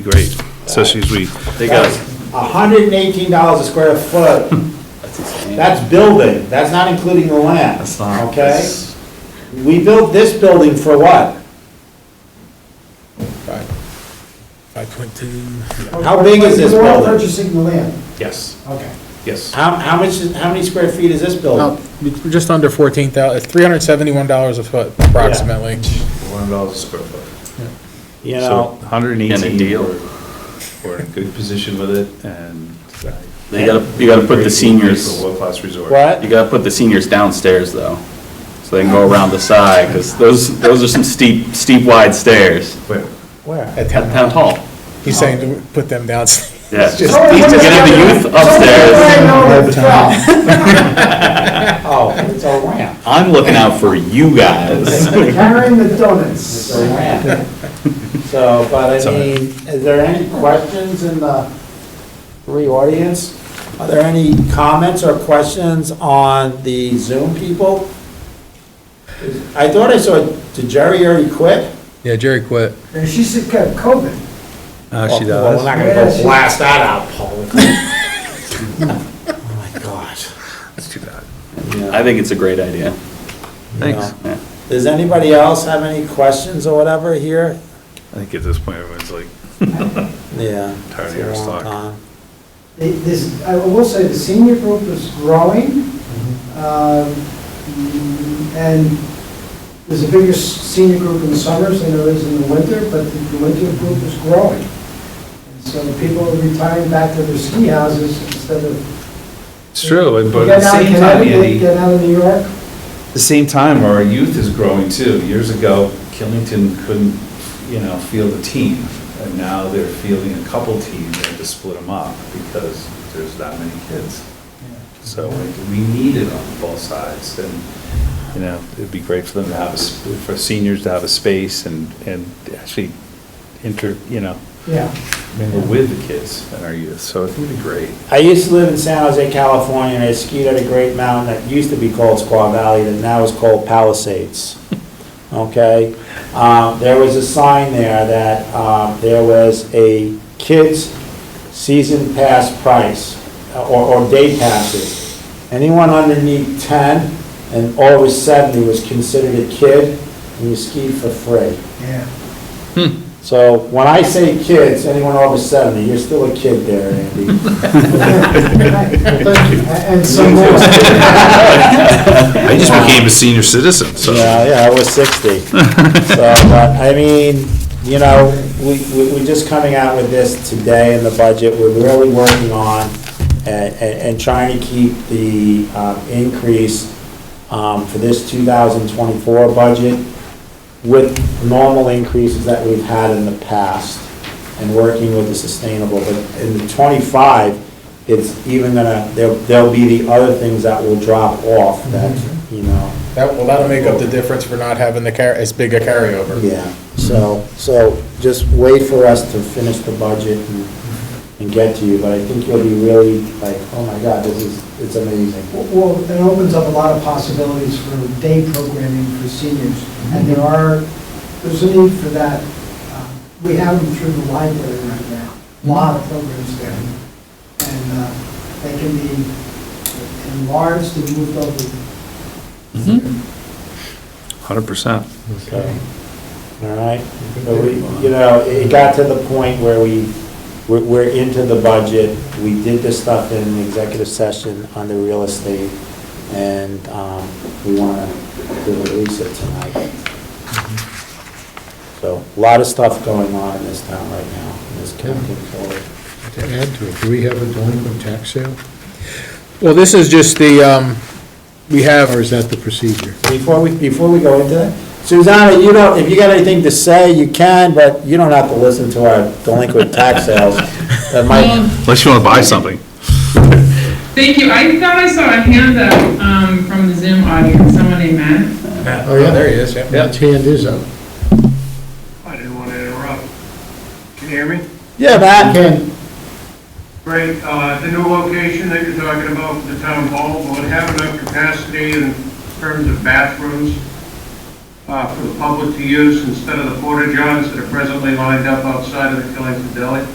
Great, especially as we, They got, hundred and eighteen dollars a square foot, that's building, that's not including the land. That's not- Okay? that's- We built this building for what? Five, five point two. How big is this You're all building? purchasing the land, yes, okay. yes. How, how much, is- how many square feet is this building? Just under fourteen thousand, it's three hundred seventy-one dollars a foot approximately. one dollars a square foot. Oh. You So know, 118. And a deal. We're in a good position with it, and. uh, They gotta, you gotta put the For seniors, a world-class resort. what? you gotta put the seniors downstairs though. So they can go around the side, because those, those are some steep, steep wide stairs Where? At at town, Town Hall. he's saying to put them down. Yeah. It's Get just- the youth upstairs. Oh, it's a ramp, I'm looking out for you guys. Carrying the donuts. it's a ramp. So, but I mean, is there any questions in the three audience? Are there any comments or questions on the Zoom people? I thought I saw, did Jerry already quit? Yeah, Jerry quit. And she said, "Kev, COVID. Oh, she Well, we're does. not gonna Yeah, go she- blast that out publicly. Oh my gosh. I think it's a great idea. Thanks. Yeah. Does anybody else have any questions or whatever here? I think at this point, everyone's like, Yeah. Tired of it's a your long stock. time. They- This, I will say, the senior group is growing, Mm-hmm. um, and there's a bigger s- senior group in the summers than there is in the winter, but the the winter group is growing. And So people are retiring back to their ski houses instead of it's true, and- but at getting the out of same time, Connecticut, Andy, getting out of New York. at the same time, our youth is growing too. Years ago, Killington couldn't, you know, field a team, and now they're fielding a couple teams, and to split them up, because there's that many kids. So like, we need it on both sides, and, you know, it'd be great for them to have, a s- for seniors to have a space and, and actually inter, you know, Yeah. mingle with the kids and our youth, so I think it'd be great. I used to live in San Jose, California, and I skied at a great mountain that used to be called Squaw Valley, that now is called Palisades. Okay? Um, there was a sign there that, um, there was a kids' season pass price, uh, or, or day passes. Anyone underneath ten and over seventy was considered a kid, and you skied for free. Yeah. So when I say kids, anyone over 70, you're still a kid there, Andy. And some more. I just became a senior citizen, so. Yeah, yeah, I was 60. So, but, I mean, you know, we, we- we're just coming out with this today in the budget. We're really working on and, and trying to keep the um, increase um, for this 2024 budget with normal increases that we've had in the past and working with the sustainable. But in the 25, it's even gonna, there'll, there'll be the other things that will drop off that, you know. That, well, that'll make up the difference for not having the car, as big a carryover. Yeah, so, so just wait for us to finish the budget and, and get to you, but I think you'll be really like, oh my God, this is, it's amazing. Well, it opens up a lot of possibilities for day programming for seniors, and there are, there's a need for that. Uh, We have them through the library right now, a lot of programs there, and uh, they can be enlarged and moved over. Hundred percent. Okay. All right, but we, you know, it it got to the point where we, we're, we're into the budget, we did this stuff in executive session under real estate, and, um, we wanna release it tonight. So, a lot of stuff going on in this town right now, in this county forward. To add to it, do we have a delinquent tax sale, Well, this is just the, um, we have, or is that the procedure? Before we, before we go into that, Susanna, you don't, if you got anything to say, you can, but you don't have to listen to our delinquent tax sales. That might, Um, Unless you want to buy something. Thank you. I thought I saw a hand up um, from the Zoom audience, someone named Matt. Oh, yeah, there he is, yeah. His hand is up. I didn't want to interrupt. Can you hear me? yeah, Matt, Ken, Great, uh, the new location that you're talking about, the town hall, will it have enough capacity in terms of bathrooms? Uh, uh, for the public to use instead of the porta johns that are presently lined up outside of the Killington Deli.